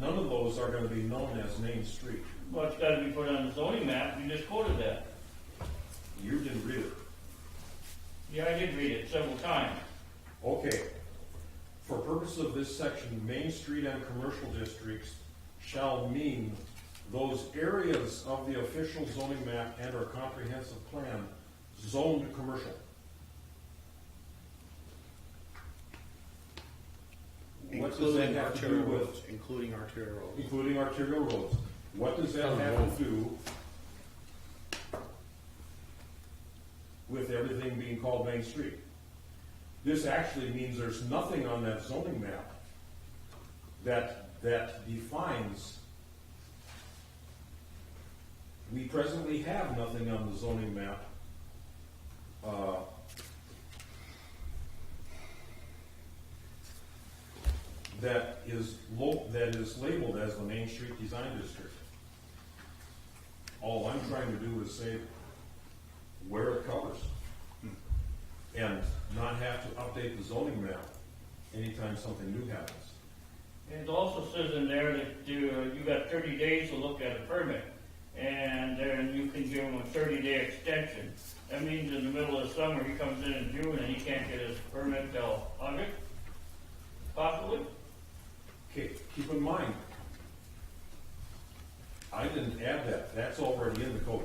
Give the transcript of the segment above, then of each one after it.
none of those are gonna be known as Main Street. Well, it's gotta be put on the zoning map, you just quoted that. You didn't read it. Yeah, I did read it several times. Okay. For purposes of this section, Main Street and commercial districts shall mean those areas of the official zoning map and or comprehensive plan zoned commercial. What does that Including have to do arterial roads, with, including arterial roads. including arterial roads? What does that have to do with everything being called Main Street? This actually means there's nothing on that zoning map that, that defines. We presently have nothing on the zoning map, uh, that is lo, that is labeled as the Main Street Design District. All I'm trying to do is say where it covers. And not have to update the zoning map anytime something new happens. And It also says in there that you, uh, you got thirty days to look at a permit, and then you can give him a thirty-day extension. That means in the middle of summer, he comes in in June and he can't get his permit till August, possibly? Okay, keep in mind, I didn't add that, that's already in the code.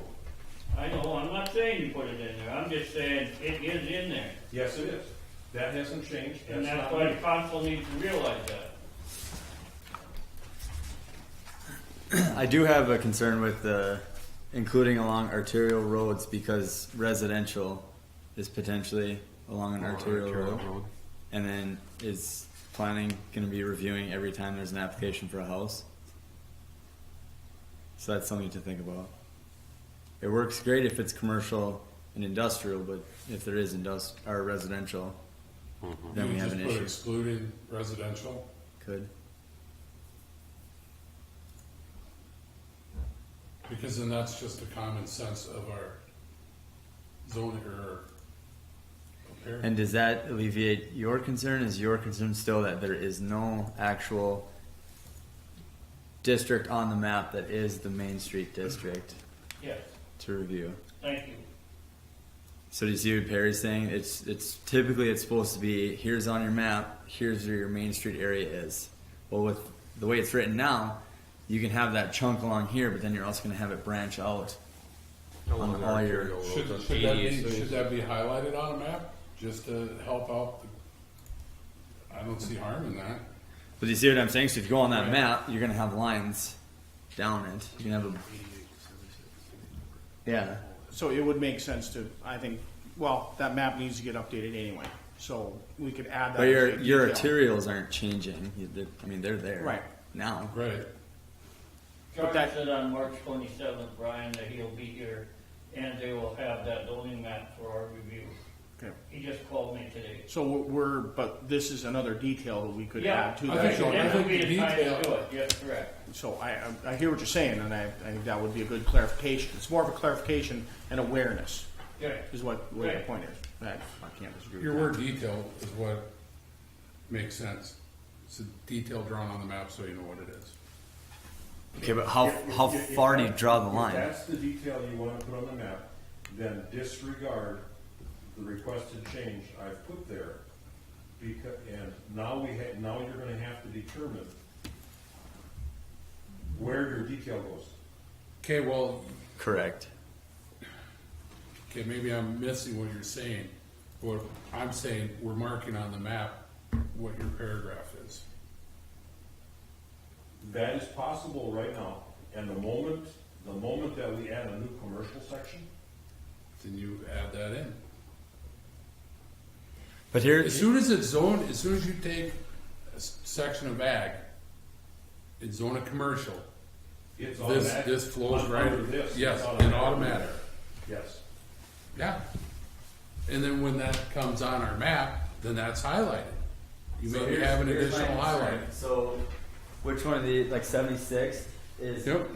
I know, I'm not saying you put it in there, I'm just saying it is in there. Yes, it is. That hasn't changed. And that's not why new. the council needs to realize that. I do have a concern with the including along arterial roads because residential is potentially along an arterial, road. And then is planning going to be reviewing every time there's an application for a house? So that's something to think about. It works great if it's commercial and industrial, but if there is industri- or residential, then we You have just an put issue. Excluded residential, Could. because then that's just the common sense of our zoning or. prepared- And does that alleviate your concern? Is your concern still that there is no actual district on the map that is the Main Street district Yes, to review? thank you. So do you see what Perry's saying? It's it's typically it's supposed to be here's on your map, here's where your Main Street area is. Well, with the way it's written now, you can have that chunk along here, but then you're also going to have it branch out on all your. Should, should that be, should that be highlighted on a map, just to help out? the- I don't see harm in that. But do you see what I'm saying? So if you go on that Right. map, you're gonna have lines down it. You can have a yeah. So it would make sense to, I think, well, that map needs to get updated anyway, so we could add that. But your as a your detail. arterials aren't changing. You- they're- I mean, they're there Right. now. Right, But Charlie that- said on March twenty-seventh, Brian, that he'll be here, and they will have that zoning map for our review. Okay. He just called me today. So we're, but this is another detail that we could Yeah, add to I that. think so. zoning That I would think be the the time to detail- do it, yes, correct. So I, I- I hear what you're saying, and I, I think that would be a good clarification. It's more of a clarification and awareness Yeah. is what, what the Right. point is. I, I can't disagree your with word detail is what makes sense. It's a detail drawn on the map so you know what it is. Okay, but how If- if- how if- far do you draw the if line? that's the detail you want to put on the map, then disregard the requested change I've put there. Because, and now we ha, now you're gonna have to determine where your detail goes. Okay, well, Correct. Okay, maybe I'm missing what you're saying. What I'm saying, we're marking on the map what your paragraph is. That is possible right now, and the moment, the moment that we add a new commercial section, Then you add that in. But here, As soon as it's zoned, as soon as you take a s- section of ag, it's zone of commercial. it's This, automatic. this flows right, Under this, it's yes, in automatic. automatic. Yes, Yeah. And then when that comes on our map, then that's highlighted. You may have an additional highlight. So, which one of the like seventy six is? Yep,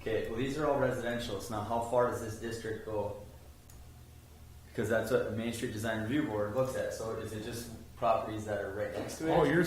Okay, well these are all residential. So now, how far does this district go? Because that's what the Main Street Design Review Board looks at. So is it just properties that are right next to it? oh, you're